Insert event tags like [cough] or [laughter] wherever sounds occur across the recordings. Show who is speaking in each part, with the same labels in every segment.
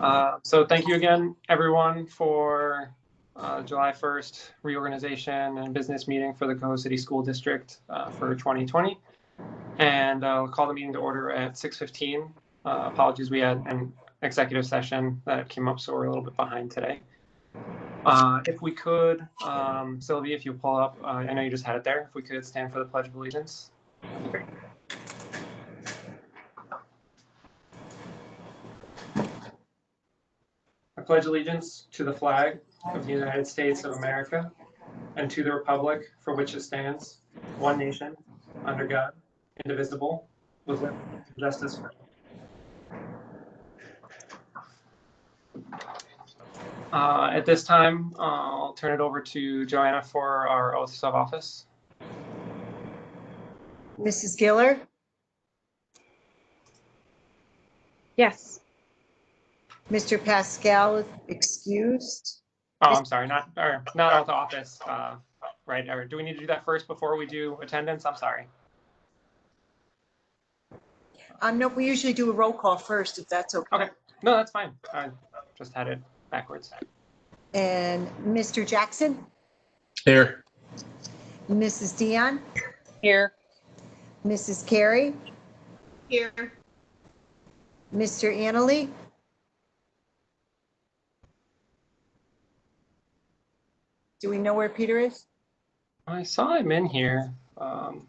Speaker 1: Uh, So thank you again, everyone, for uh, July 1st reorganization and business meeting for the Coho City School District uh, for 2020. And I'll call the meeting to order at 6:15. Uh, Apologies, we had an executive session that came up, so we're a little bit behind today. Uh, If we could, um, Sylvie, if you pull up, uh, I know you just had it there, if we could stand for the Pledge of Allegiance. I pledge allegiance to the flag of the United States of America and to the republic for which it stands, one nation, under God, indivisible, with liberty and justice for all. Uh, At this time, uh, I'll turn it over to Joanna for our oaths of office.
Speaker 2: Mrs. Giller,
Speaker 3: Yes.
Speaker 2: Mr. Pascal is excused.
Speaker 1: Oh, I'm sorry, not, or not oath of office, uh, right, or do we need to do that first before we do attendance? I'm sorry.
Speaker 2: Um, no, we usually do a roll call first, if that's okay.
Speaker 1: Okay, no, that's fine. I just had it backwards.
Speaker 2: And Mr. Jackson,
Speaker 4: Here.
Speaker 2: Mrs. Dion,
Speaker 3: Here.
Speaker 2: Mrs. Carey,
Speaker 3: Here.
Speaker 2: Mr. Annaly. Do we know where Peter is?
Speaker 1: I saw him in here. Um,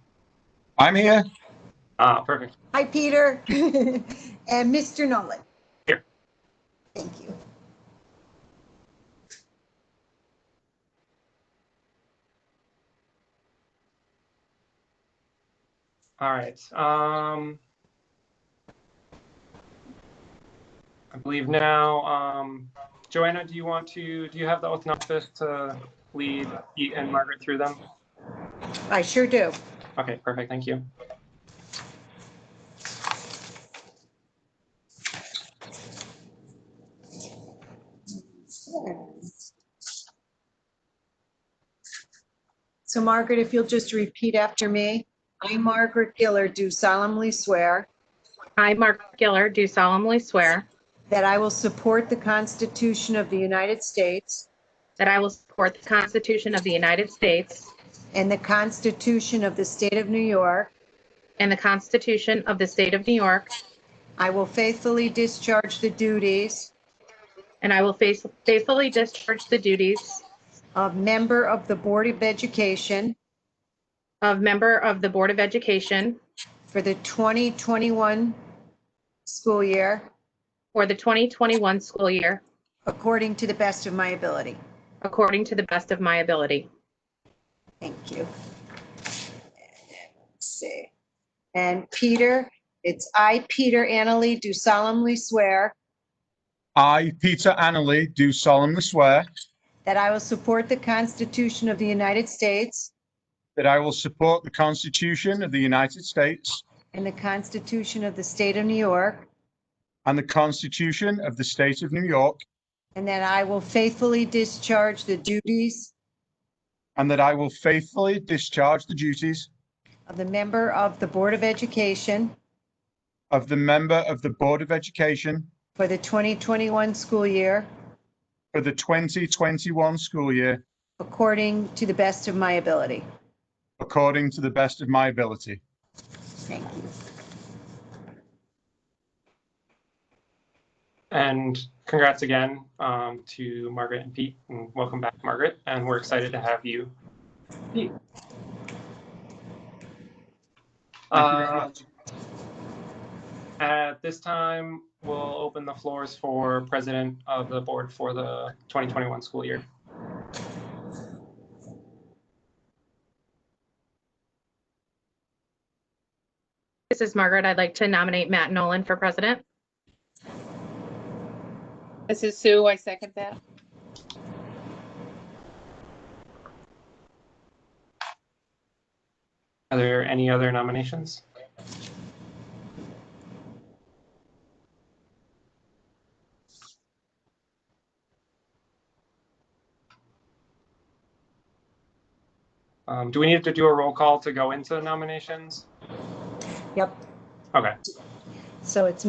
Speaker 4: I'm here.
Speaker 1: ah, perfect.
Speaker 2: Hi, Peter. [laughs] And Mr. Nolan.
Speaker 1: Here.
Speaker 2: Thank you.
Speaker 1: All right. Um, I believe now, um, Joanna, do you want to, do you have the oath and office to lead Pete and Margaret through them?
Speaker 2: I sure do.
Speaker 1: Okay, perfect. Thank you.
Speaker 2: So Margaret, if you'll just repeat after me. I, Margaret Giller, do solemnly swear
Speaker 3: I, Mark Giller, do solemnly swear
Speaker 2: that I will support the Constitution of the United States
Speaker 3: that I will support the Constitution of the United States
Speaker 2: and the Constitution of the State of New York.
Speaker 3: and the Constitution of the State of New York,
Speaker 2: I will faithfully discharge the duties
Speaker 3: and I will face- faithfully discharge the duties
Speaker 2: of member of the Board of Education
Speaker 3: of member of the Board of Education
Speaker 2: for the 2021 school year
Speaker 3: for the 2021 school year
Speaker 2: according to the best of my ability.
Speaker 3: according to the best of my ability.
Speaker 2: Thank you. Let's see. And Peter, it's I, Peter Annaly, do solemnly swear
Speaker 4: I, Peter Annerly, do solemnly swear
Speaker 2: that I will support the Constitution of the United States
Speaker 4: that I will support the Constitution of the United States
Speaker 2: and the Constitution of the State of New York,
Speaker 4: and the Constitution of the State of New York,
Speaker 2: and that I will faithfully discharge the duties
Speaker 4: and that I will faithfully discharge the duties
Speaker 2: of the member of the Board of Education
Speaker 4: of the member of the Board of Education
Speaker 2: for the 2021 school year
Speaker 4: for the 2021 school year
Speaker 2: according to the best of my ability.
Speaker 4: according to the best of my ability.
Speaker 2: Thank you.
Speaker 1: And congrats again um, to Margaret and Pete. And welcome back, Margaret. And we're excited to have you. Pete.
Speaker 4: Thank you very
Speaker 1: Uh,
Speaker 4: much.
Speaker 1: At this time, we'll open the floors for president of the board for the 2021 school year.
Speaker 3: This is Margaret. I'd like to nominate Matt Nolan for president.
Speaker 5: This is Sue. I second that.
Speaker 1: Are there any other nominations? Um, Do we need to do a roll call to go into the nominations?
Speaker 2: Yep.
Speaker 1: Okay.
Speaker 2: So it's